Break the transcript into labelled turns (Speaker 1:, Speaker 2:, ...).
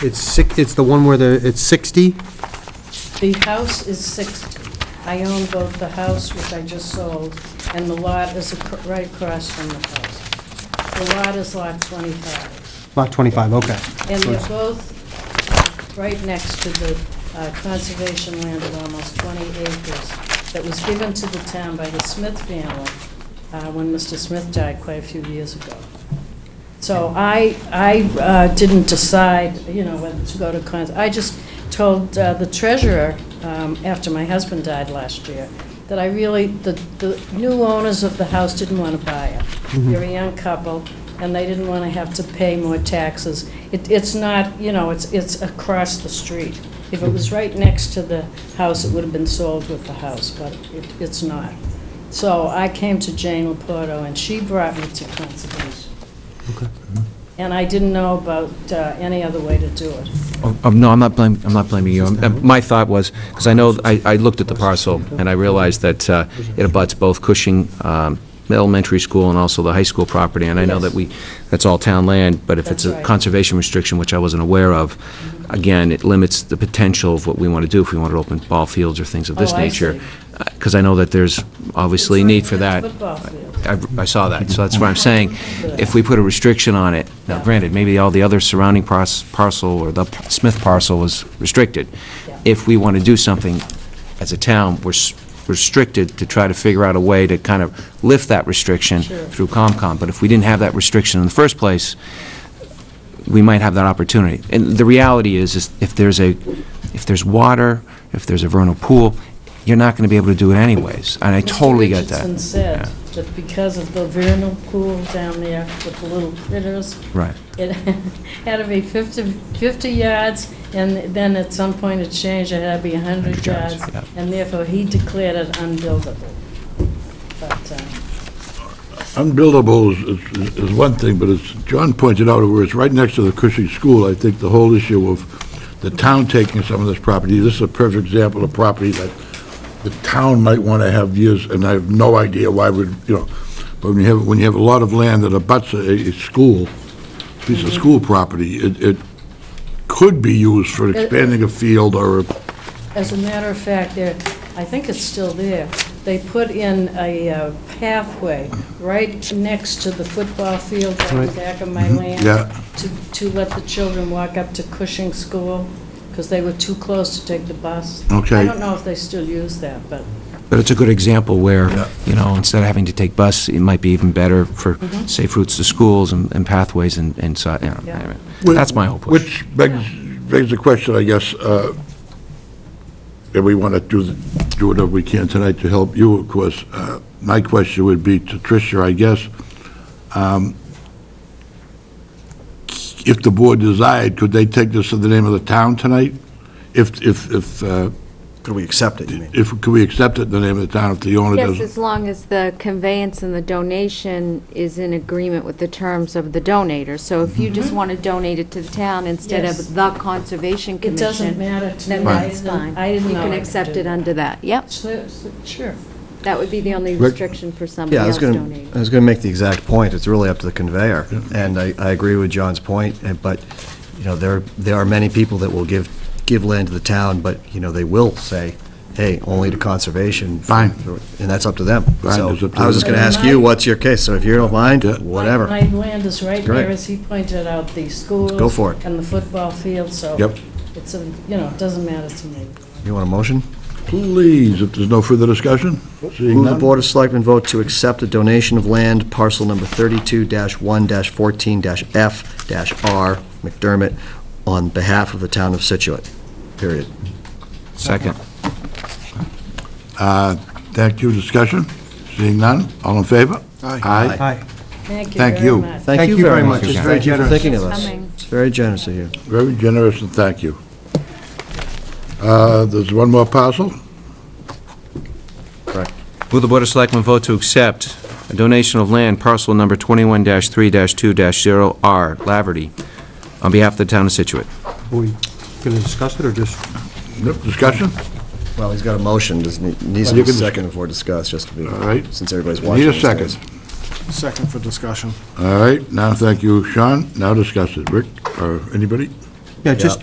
Speaker 1: It's six, it's the one where the, it's 60?
Speaker 2: The house is 60. I own both the house, which I just sold, and the lot is ac- right across from the house. The lot is lot 25.
Speaker 1: Lot 25, okay.
Speaker 2: And they're both right next to the uh, conservation land of almost 20 acres that was given to the town by the Smith family uh, when Mr. Smith died quite a few years ago. So I, I uh, didn't decide, you know, whether to go to cons, I just told uh, the treasurer, um, after my husband died last year, that I really, the, the new owners of the house didn't want to buy it. They're a young couple, and they didn't want to have to pay more taxes. It, it's not, you know, it's, it's across the street. If it was right next to the house, it would have been sold with the house, but it, it's not. So I came to Jane Laporto, and she brought me to conservation. And I didn't know about uh, any other way to do it.
Speaker 3: Oh, um, No, I'm not blaming, I'm not blaming you. Um, My thought was, because I know, I I looked at the parcel, and I realized that uh, it abuts both Cushing um, Elementary School and also the high school property, and I know that we, that's all town land, but if it's
Speaker 2: That's
Speaker 3: a
Speaker 2: right.
Speaker 3: conservation restriction, which I wasn't aware of, again, it limits the potential of what we want to do if we want to open ball fields or things of this
Speaker 2: Oh, I
Speaker 3: nature.
Speaker 2: see.
Speaker 3: Because I know that there's obviously
Speaker 2: It's
Speaker 3: need
Speaker 2: right
Speaker 3: for
Speaker 2: near the
Speaker 3: that.
Speaker 2: Football field.
Speaker 3: I I saw that, so that's what I'm saying. If we put a restriction on it, now granted, maybe all the other surrounding pars- parcel or the Smith parcel was restricted.
Speaker 2: Yeah.
Speaker 3: If we want to do something as a town, we're s- restricted to try to figure out a way to kind of lift that restriction
Speaker 2: Sure.
Speaker 3: through COMCOM. But if we didn't have that restriction in the first place, we might have that opportunity. And the reality is, is if there's a, if there's water, if there's a vernal pool, you're not going to be able to do it anyways. And I totally get that.
Speaker 2: Mr. Richardson said that because of the vernal pool down there with the little critters,
Speaker 3: Right.
Speaker 2: it had to be 50, 50 yards, and then at some point it changed, it had to be 100
Speaker 3: 100 yards,
Speaker 2: yards,
Speaker 3: yeah.
Speaker 2: and therefore he declared it unbuildable. But, uh,
Speaker 4: Unbuildable is- is, is one thing, but as John pointed out, where it's right next to the Cushing School, I think the whole issue of the town taking some of this property, this is a perfect example of property that the town might want to have years, and I have no idea why would, you know, but when you have, when you have a lot of land that abuts a, a school, piece of school property, it, it could be used for expanding a field or a
Speaker 2: As a matter of fact, there, I think it's still there, they put in a uh, pathway right next to the football field at the
Speaker 1: Right.
Speaker 2: back of my land.
Speaker 4: yeah.
Speaker 2: To, to let the children walk up to Cushing School, because they were too close to take the bus. I
Speaker 4: Okay.
Speaker 2: don't know if they still use that, but,
Speaker 3: But it's a good example
Speaker 4: Yeah.
Speaker 3: where, you know, instead of having to take bus, it might be even better for safe routes to schools and and pathways and, and so, you know,
Speaker 2: Yeah.
Speaker 3: anyway. that's my whole push.
Speaker 4: Which begs, begs the question, I guess, uh, and we want to do, do whatever we can tonight to help you, of course. Uh, My question would be to Tricia, I guess, um, if the board desired, could they take this in the name of the town tonight? If, if, if, uh,
Speaker 5: Could we accept it, you mean?
Speaker 4: if, could we accept it in the name of the town if the owner
Speaker 6: Yes,
Speaker 4: doesn't?
Speaker 6: as long as the conveyance and the donation is in agreement with the terms of the donator. So if you just want to donate it to the town instead
Speaker 2: Mm-hmm. Yes.
Speaker 6: of the Conservation
Speaker 2: It
Speaker 6: Commission.
Speaker 2: doesn't matter to
Speaker 6: Then
Speaker 2: me. I
Speaker 6: that's
Speaker 2: didn't-
Speaker 6: fine.
Speaker 2: I didn't know
Speaker 6: You can
Speaker 2: I could
Speaker 6: accept
Speaker 2: do
Speaker 6: it
Speaker 2: that.
Speaker 6: under that, yep.
Speaker 2: so- so- sure.
Speaker 6: That would be the only
Speaker 4: Rick?
Speaker 6: restriction for somebody
Speaker 5: Yeah, I was
Speaker 6: else
Speaker 5: going
Speaker 6: donating.
Speaker 5: to, I was going to make the exact point, it's really up to the conveyor. And I, I agree with John's point, and- but, you know, there, there are many people that will give, give land to the town, but, you know, they will say, hey, only to conservation.
Speaker 4: Fine.
Speaker 5: And that's up to them.
Speaker 4: Fine,
Speaker 5: So
Speaker 4: it's up to
Speaker 5: I was just
Speaker 4: them.
Speaker 5: going to ask you, what's your case? So if you don't mind,
Speaker 4: Yeah.
Speaker 5: whatever.
Speaker 2: My my land is right
Speaker 5: Great.
Speaker 2: there, as he pointed out, the schools.
Speaker 5: Go for it.
Speaker 2: And the football field, so.
Speaker 4: Yep.
Speaker 2: It's, a you know, it doesn't matter to me.
Speaker 5: You want a motion?
Speaker 4: Please, if there's no further discussion? Seeing
Speaker 5: Move the
Speaker 4: none?
Speaker 5: Board of Selectmen vote to accept a donation of land, parcel number 32-1-14-F-R, McDermott, on behalf of the town of Situate, period.
Speaker 3: Second.
Speaker 4: Uh, Thank you, discussion? Seeing none? All in favor? Aye.
Speaker 1: Hi.
Speaker 2: Thank you
Speaker 4: Thank
Speaker 2: very
Speaker 4: you.
Speaker 2: much.
Speaker 5: Thank you very much, it's very generous. Thinking of
Speaker 6: Thanks
Speaker 5: us.
Speaker 6: for coming.
Speaker 5: It's very generous of you.
Speaker 4: Very generous, and thank you. Uh, There's one more parcel?
Speaker 3: Will the Board of Selectmen vote to accept a donation of land parcel number 21-3-2-0R, Laverty, on behalf of the town of Situate?
Speaker 1: Are we going to discuss it, or just,
Speaker 4: Nope, Discussion?
Speaker 5: Well, he's got a motion, doesn't he, needs to
Speaker 4: Well, you
Speaker 5: be
Speaker 4: can-
Speaker 5: second before discussed, just to be,
Speaker 4: All right.
Speaker 5: since everybody's watching.
Speaker 4: Need a
Speaker 5: these
Speaker 4: second.
Speaker 5: days.
Speaker 7: Second for discussion.
Speaker 4: All right, now, thank you, Sean. Now discuss it. Rick, or uh, anybody?
Speaker 1: Yeah, just,